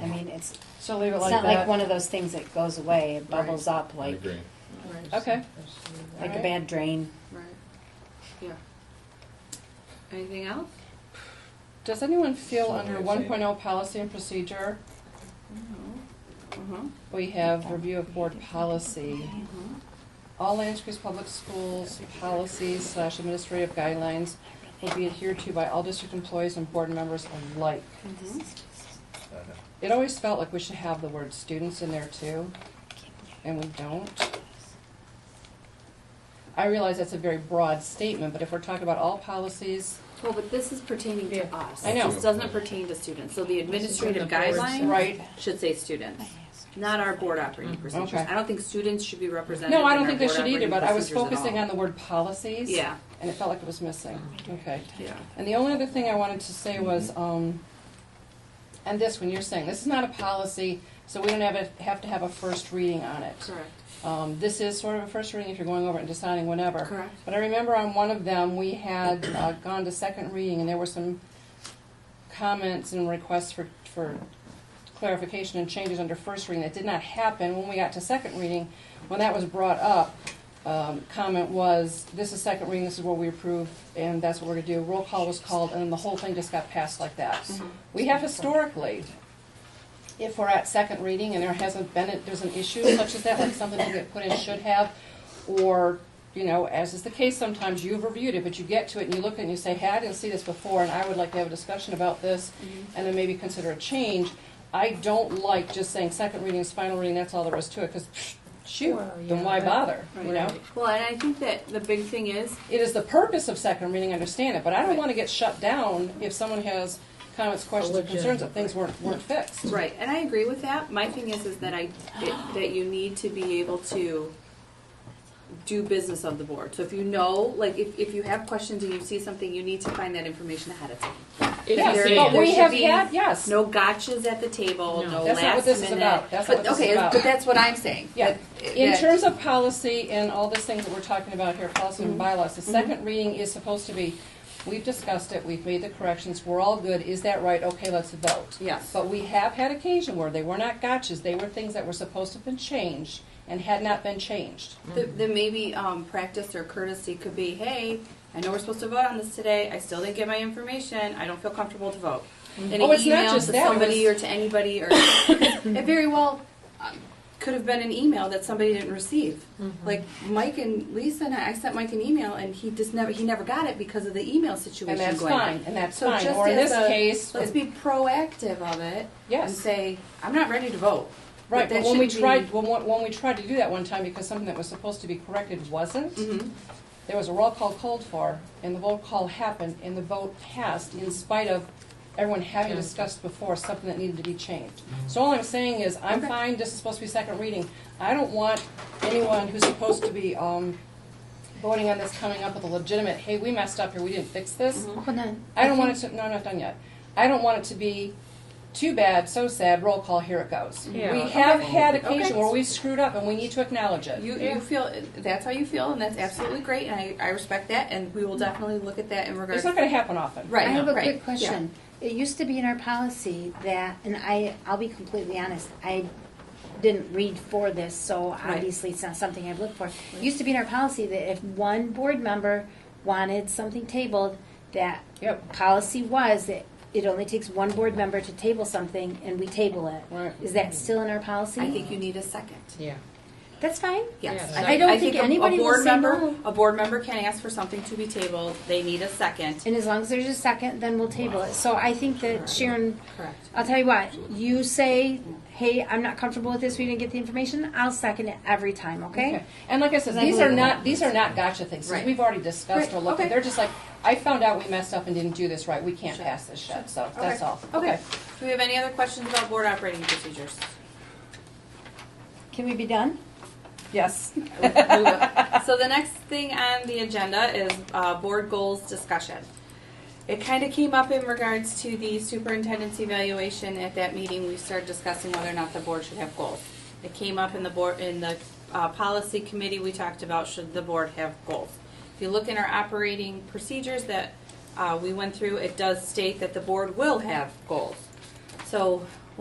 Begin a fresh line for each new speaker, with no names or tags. I mean, it's,
So leave it
it's
like
not like
that.
one of those things that goes away, it bubbles up
I
like,
agree.
Okay.
like a
Alright.
bad drain.
Right. Yeah. Anything else?
Does anyone feel
So
under
you're
one oh
saying-
policy and procedure,
Uh-huh.
we have review of board policy? All Land Creek Public Schools policies slash administrative guidelines will be adhered to by all district employees and board members alike.
Mhm.
It always felt like we should have the word students in there too, and we don't. I realize that's a very broad statement, but if we're talking about all policies,
Well, but this is pertaining to us.
I know.
This doesn't pertain to students, so the administrative guidelines
right? Mm-hmm.
should say students, not our board operating procedures.
Okay.
I don't think students should be represented
No, I don't
in our
think they
board
should either,
operating
but I was
procedures at
focusing
all.
on the word policies.
Yeah,
And it felt like it was missing, okay.
yeah.
And the only other thing I wanted to say was, um, and this, when you're saying, this is not a policy, so we don't have, a- have to have a first reading on it.
Correct.
Um, this is sort of a first reading if you're going over it and deciding whenever.
Correct.
But I remember on one of them, we had uh, gone to second reading, and there were some comments and requests for, for clarification and changes under first reading that did not happen. When we got to second reading, when that was brought up, um, comment was, this is second reading, this is what we approve, and that's what we're gonna do. Roll call was called, and then the whole thing just got passed like that. We have historically, if we're at second reading and there hasn't been, it- there's an issue such as that, like something that get put in should have, or, you know, as is the case sometimes, you've reviewed it, but you get to it and you look at it and you say, hey, I didn't see this before, and I would like to have a discussion about this,
Mm-hmm.
and then maybe consider a change. I don't like just saying second reading is final reading, that's all there is to it, because shoot,
Well,
then
yeah,
why
that-
bother, you
Right.
know?
Well, and I think that the big thing is,
It is the purpose of second reading, I understand it, but I don't
Right.
want to get shut down if someone has comments, questions, or concerns that
legitimate-
things weren't, weren't fixed.
Right, and I agree with that. My thing is, is that I, that- that you need to be able to do business of the board. So if you know, like, if, if you have questions and you see something, you need to find that information ahead of time.
Yes,
There-
but
there
we
should
have
be
had, yes.
No gotchas at the table, no
That's not what
last
this is
minute.
about. That's not
But,
what this is
okay,
about.
but that's what I'm saying.
Yeah.
That-
In
that-
terms of policy and all these things that we're talking about here, policy
Mm-hmm.
and bylaws, the second reading is supposed to be, we've discussed it, we've made the corrections, we're all good, is that right? Okay, let's vote.
Yes.
But we have had occasion where they were not gotchas, they were things that were supposed to have been changed and had not been changed.
Th- Then maybe um, practice or courtesy could be, hey, I know we're supposed to vote on this today. I still didn't get my information. I don't feel comfortable to vote. And
Oh,
an
it's not
email
just
to
that, it
somebody
was-
or to anybody, or it very well um, could have been an email that somebody didn't receive.
Mm-hmm.
Like Mike and Lisa and I, I sent Mike an email, and he just never he never got it because of the email situation.
And that's
going on.
fine, and that's
So
fine,
just
or in
as
this
a-
case,
let's be proactive of it and
yes,
say, I'm not ready to vote.
right,
that
but when we
shouldn't
tried, when, when we tried to do that one time because something that was supposed to be corrected wasn't,
be- Mhm.
There was a roll call called for, and the roll call happened, and the vote passed in spite of everyone having discussed before something that needed to be changed. So all I'm saying is, I'm
Okay.
fine, this is supposed to be second reading. I don't want anyone who's supposed to be, um, voting on this coming up with a legitimate, hey, we messed up here, we didn't fix this.
Mm-hmm.
Hold on.
I don't want it to, no, I'm not done yet. I don't want it to be too bad, so sad, roll call, here it goes. We
Yeah.
have had occasion
Okay.
where we've screwed up and we need to acknowledge it.
You, you feel that's how you feel, and that's absolutely great, and I, I respect that, and we will definitely look at that in regards.
It's not gonna happen often.
right,
I have a
right,
quick question. It used to be in our policy that, and I, I'll be completely honest, I didn't read for this, so obviously it's not something I've looked for. It used to be in our policy that if one board member wanted something tabled, that
Yep.
policy was that it only takes one board member to table something and we table it.
Right.
Is that still in our policy?
Yeah. I think you need a second.
Yeah.
That's fine.
Yes,
Yes.
I don't think
a-
anybody
a
will
board
say
member,
no.
A board member can ask for something to be tabled. They need a second.
And as long as there's a second, then we'll table it. So I think that Sharon
Correct.
I'll tell you what, you say, hey, I'm not comfortable with this, we didn't get the information, I'll second it every time, okay?
Okay. And like I said,
Because I
these are
believe
not, these are not gotcha things, 'cause
Right.
we've already discussed or
Right,
looked at,
okay.
they're just like, I found out we messed up and didn't do this right, we can't
Sure.
pass this shit, so that's all.
Okay. Do we have any other questions about board operating procedures?
Can we be done?
Yes.
so the next thing on the agenda is uh, board goals discussion. It kind of came up in regards to the superintendent's evaluation at that meeting. We started discussing whether or not the board should have goals. It came up in the board in the uh, policy committee. We talked about should the board have goals. If you look in our operating procedures that uh, we went through, it does state that the board will have goals. So